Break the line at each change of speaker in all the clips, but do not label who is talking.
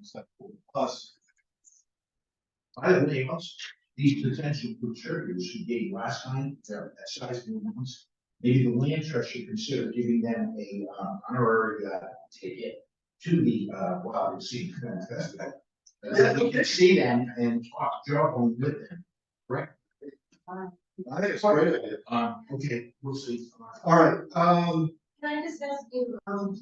except for us. I have anything else, these potential contributors who gave last time, they're excising the ones. Maybe the land trust should consider giving them a uh, honorary uh, ticket to the uh, Wild and Scenic Event Festival. And then we can see them and talk, jog on with them, right? I think it's great idea. Um, okay, we'll see. All right, um.
Can I just ask you, um,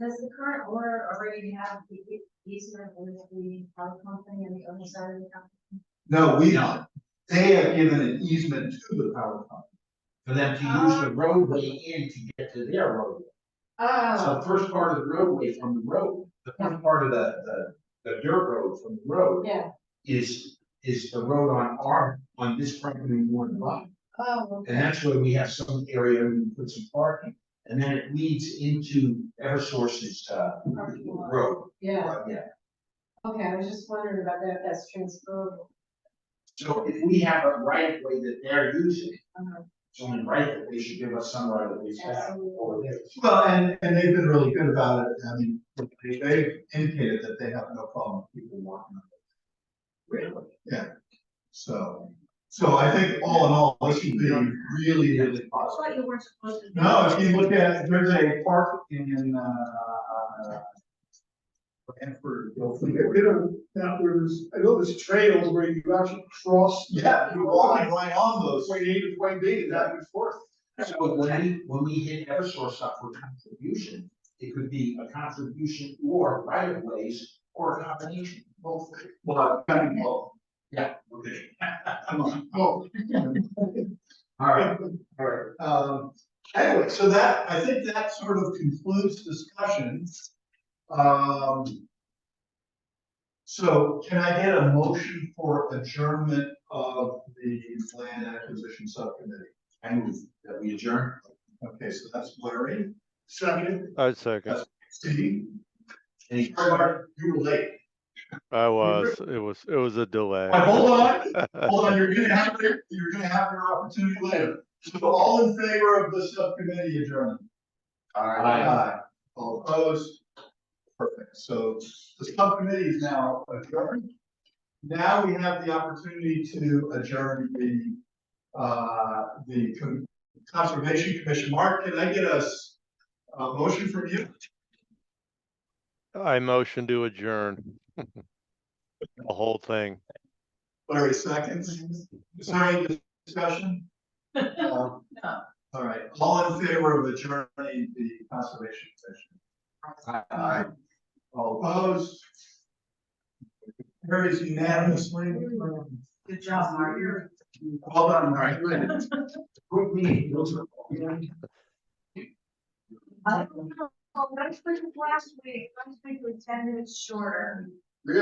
does the current owner already have the e- easement with the power company on the other side of the company?
No, we don't. They have given an easement to the power company. For them to use
Ah.
the roadway in to get to their roadway. So the
Oh,
first part of the roadway from the road, the first part of the, the, the dirt road from the road
yeah,
is, is the road on our, on this property one lot.
oh,
And that's where we have some area we can put some parking. And then it leads into Eversource's, uh,
Property line.
road.
yeah,
Uh, Yeah.
okay, I was just wondering about that, if that's transferable.
So if we have a right of way that they're using,
Uh-huh.
it's only right that they should give us some right of ways back over there.
Well, and, and they've been really good about it, I mean, they, they've indicated that they have no problem with people walking up,
Really?
so. So I think all in all, this should be really, really
I
positive.
thought you weren't supposed to.
No, if you look at, there's a park in, uh. Hanford,
They don't, that was, I know there's trails where you actually cross.
yeah, you're walking right on those,
Point A to point B, and that was forth.
So when we, when we hit Eversource up for contribution, it could be a contribution or right of ways or a combination, both.
well, kind of, well,
Yeah, okay.
come on.
All right, all right.
Um, anyway, so that, I think that sort of concludes discussions. Um. So can I get a motion for adjournment of the land acquisition subcommittee?
I move that we adjourn.
Okay, so that's Larry,
Second,
I second.
Steve,
Any further?
Clark, you were late.
I was, it was, it was a delay.
Now, hold on, hold on, you're gonna have your, you're gonna have your opportunity later. So all in favor of the subcommittee adjournment? Aye. All opposed? Perfect, so the subcommittee is now adjourned. Now we have the opportunity to adjourn the, uh, the Con- Conservation Commission. Mark, can I get a, s- a motion from you?
I motion to adjourn. The whole thing.
Larry seconds. Is there any discussion? No. All right, all in favor of adjourning the Conservation Commission? Aye. All opposed? Carries unanimously.
Good job, Mark.
Well done, Mark.
Quick meeting, those are.
Oh, I don't know, last week, last week, last week was ten minutes shorter.